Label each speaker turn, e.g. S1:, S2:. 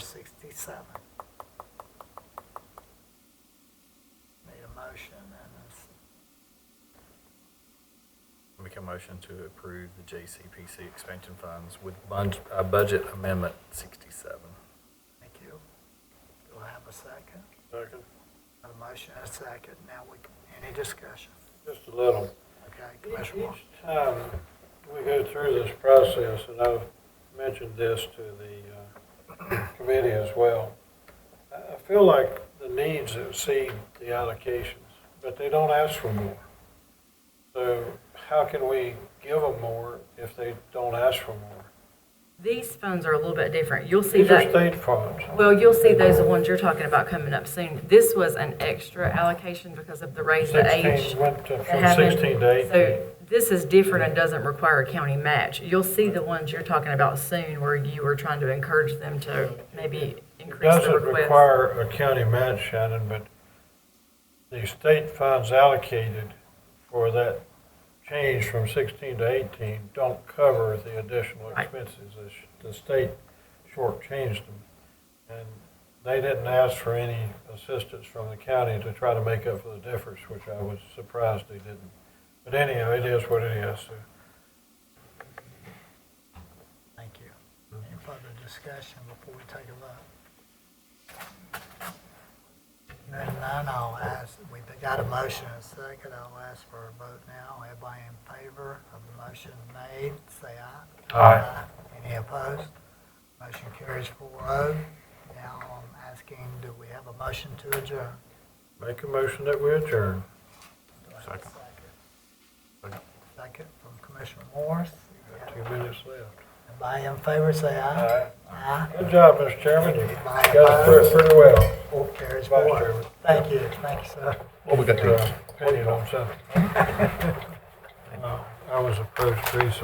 S1: sixty-seven. Need a motion and a s-
S2: Make a motion to approve the JCPC expansion funds with bun- uh, budget amendment sixty-seven.
S1: thank you. Do I have a second?
S3: Second,
S1: Got A motion and a second. Now we, can- any discussion?
S3: just a little.
S1: Okay,
S3: Each
S1: Commissioner Moore.
S3: each time we go through this process, and I've mentioned this to the uh, committee as well, I I feel like the needs exceed the allocations, but they don't ask for more. So how can we give them more if they don't ask for more?
S4: These funds are a little bit different. You'll see
S3: These are
S4: that,
S3: state funds.
S4: well, you'll see those, the ones you're talking about coming up soon. This was an extra allocation because of the raise the age.
S3: 16 Went to-
S4: that
S3: from
S4: happened.
S3: 16 to 18.
S4: So this is different and doesn't require a county match. You'll see the ones you're talking about soon where you were trying to encourage them to maybe increase the
S3: Doesn't
S4: request.
S3: require a county match, Shannon, but the state funds allocated for that change from sixteen to eighteen don't cover the additional
S4: Right.
S3: expenses. The sh- The state shortchanged them. And they didn't ask for any assistance from the county to try to make up for the difference, which I was surprised they didn't. But anyhow, it is what it is. So
S1: Thank you. Any further discussion before we take a vote? Hearing none, I'll ask, we've got a motion and a second, I'll ask for a vote now. Everybody in favor of the motion made, say aye.
S3: Aye.
S1: Any opposed? Motion carries four oh. Now I'm asking, do we have a motion to adjourn?
S3: Make a motion that we adjourn.
S1: Do I have a
S2: Second. Second.
S1: Second from Commissioner Morris.
S3: Got Two minutes left.
S1: Everybody in favor, say aye. Aye.
S3: Good job, Mr. Chairman. You
S1: Aye.
S3: got through it pretty well.
S1: Four carries
S3: Vice
S1: four.
S3: Chairman.
S1: Thank you, thank you, sir.
S2: What we got
S3: uh, opinion on something. Uh, I was approached recently